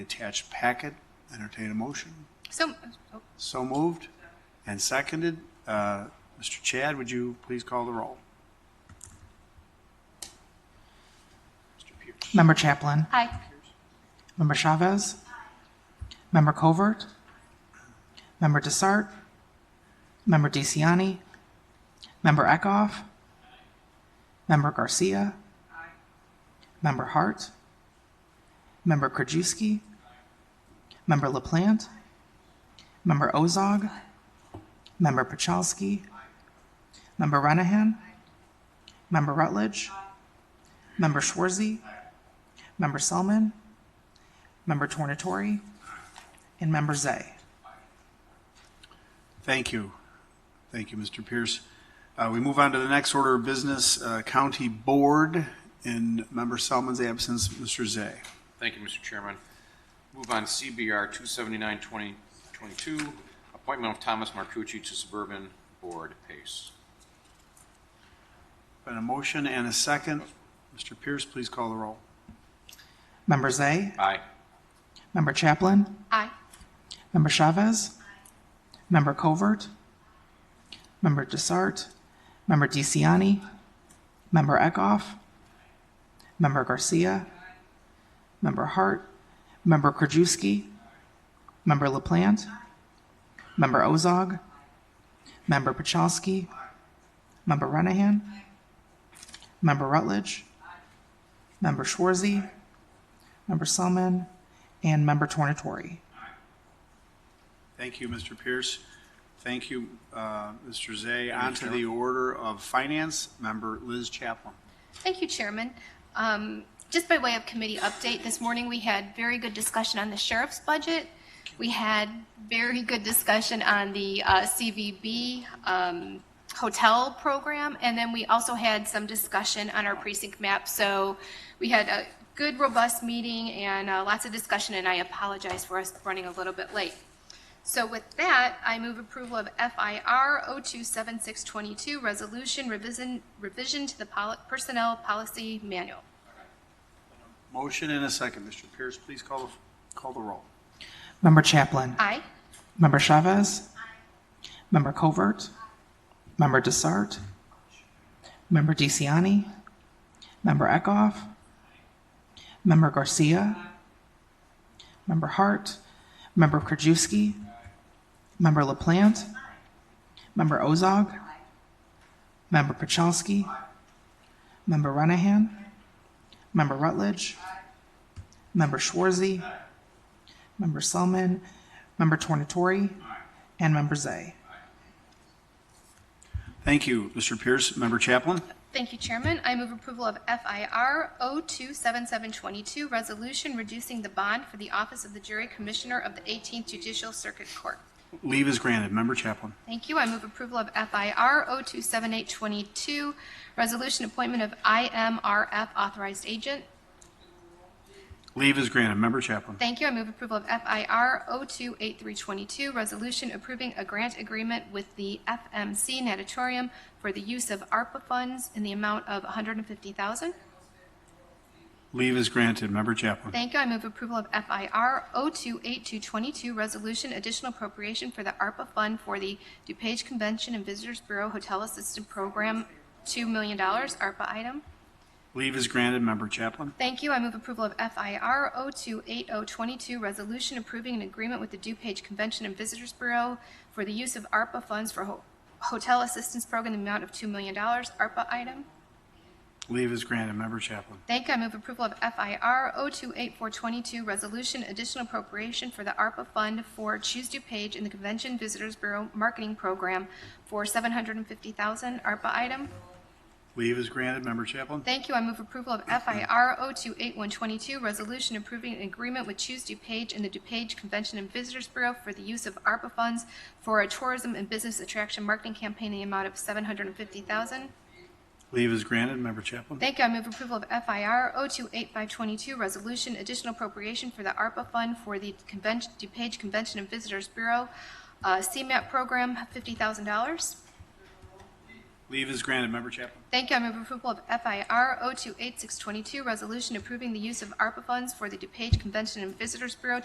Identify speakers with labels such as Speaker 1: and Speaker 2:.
Speaker 1: attached packet. Entertain a motion.
Speaker 2: So, oh,
Speaker 1: So moved and seconded. Uh, Mr. Chad, would you please call the roll? Mr. Pierce.
Speaker 3: Member Chaplin.
Speaker 2: aye.
Speaker 3: Member Chavez. Member Covert. Member Desart. Member DeCiani. Member Eckhoff. Member Garcia. Member Hart. Member Krajewski. Member LaPlante. Member Ozog. Member Pachalski. Member Renahan. Member Rutledge. Member Schwarzy. Member Selman. Member Tornatori, and Member Zay.
Speaker 1: Thank you. Thank you, Mr. Pierce. Uh, We move on to the next order of business, uh, County Board. In Member Selman's absence, Mr. Zay.
Speaker 4: Thank you, Mr. Chairman. Move on to CBR 279-2022, appointment of Thomas Marcucci to Suburban Board Pace.
Speaker 1: Been a motion and a second. Mr. Pierce, please call the roll.
Speaker 3: Member Zay,
Speaker 4: Aye.
Speaker 3: Member Chaplin,
Speaker 2: Aye.
Speaker 3: Member Chavez, Member Covert, Member Desart, Member DeCiani, Member Eckhoff, Member Garcia, Member Hart, Member Krajewski, Member LaPlante, Member Ozog, Member Pachowski, Member Renahan, Member Rutledge, Member Schwarzy, Member Selman, and Member Tornatori.
Speaker 1: Thank you, Mr. Pierce. Thank you, uh, Mr. Zay. On to the order of Finance, Member Liz Chaplin.
Speaker 2: Thank you, Chairman. Um, Just by way of committee update, this morning we had very good discussion on the sheriff's budget. We had very good discussion on the uh, CVB um, hotel program, and then we also had some discussion on our precinct map. So we had a good, robust meeting and uh, lots of discussion, and I apologize for us running a little bit late. So with that, I move approval of FIR 027622, Resolution Revision, Revision to the Pol- Personnel Policy Manual.
Speaker 1: Motion and a second. Mr. Pierce, please call, the call the roll.
Speaker 3: Member Chaplin.
Speaker 2: Aye.
Speaker 3: Member Chavez. Member Covert. Member Desart. Member DeCiani. Member Eckhoff. Member Garcia. Member Hart. Member Krajewski. Member LaPlante. Member Ozog. Member Pachowski. Member Renahan. Member Rutledge. Member Schwarzy. Member Selman, Member Tornatori, and Member Zay.
Speaker 1: Thank you, Mr. Pierce. Member Chaplin?
Speaker 2: Thank you, Chairman. I move approval of FIR 027722, Resolution Reducing the Bond for the Office of the Jury Commissioner of the 18th Judicial Circuit Court.
Speaker 1: Leave is granted. Member Chaplin.
Speaker 2: Thank you. I move approval of FIR 027822, Resolution Appointment of IMRF Authorized Agent.
Speaker 1: Leave is granted. Member Chaplin.
Speaker 2: Thank you. I oh move approval of FIR 028322, resolution approving a grant agreement with the FMC Natatorium for the use of ARPA funds in the amount of $150,000.
Speaker 1: Leave is granted. Member Chaplin.
Speaker 2: Thank you. I oh move approval of FIR 028222, resolution additional appropriation for the ARPA fund for the DuPage Convention and Visitors Bureau Hotel Assistant Program, $2 million ARPA item.
Speaker 1: Leave is granted. Member Chaplin.
Speaker 2: Thank you. I oh move approval of FIR 028022, resolution approving an agreement with the DuPage Convention and Visitors Bureau for the use of ARPA funds for ho- hotel assistance program in the amount of $2 million, ARPA item.
Speaker 1: Leave is granted. Member Chaplin.
Speaker 2: Thank you. I oh move approval of FIR 028422, resolution additional appropriation for the ARPA fund for Choose DuPage and the Convention Visitors Bureau Marketing Program for $750,000, ARPA item.
Speaker 1: Leave is granted. Member Chaplin.
Speaker 2: Thank you. I move approval of FIR 028122, resolution approving an agreement with Choose DuPage and the DuPage Convention and Visitors Bureau for the use of ARPA funds for a tourism and business attraction marketing campaign in the amount of 750000
Speaker 1: Leave is granted. Member Chaplin.
Speaker 2: Thank you. I move approval of FIR 028522, resolution additional appropriation for the ARPA fund for the convention, DuPage Convention and Visitors Bureau, uh, CMAP program, $50,000.
Speaker 1: Leave is granted. Member Chapman.
Speaker 2: Thank you. I move approval of FIR 028622, resolution approving the use of ARPA funds for the DuPage Convention and Visitors Bureau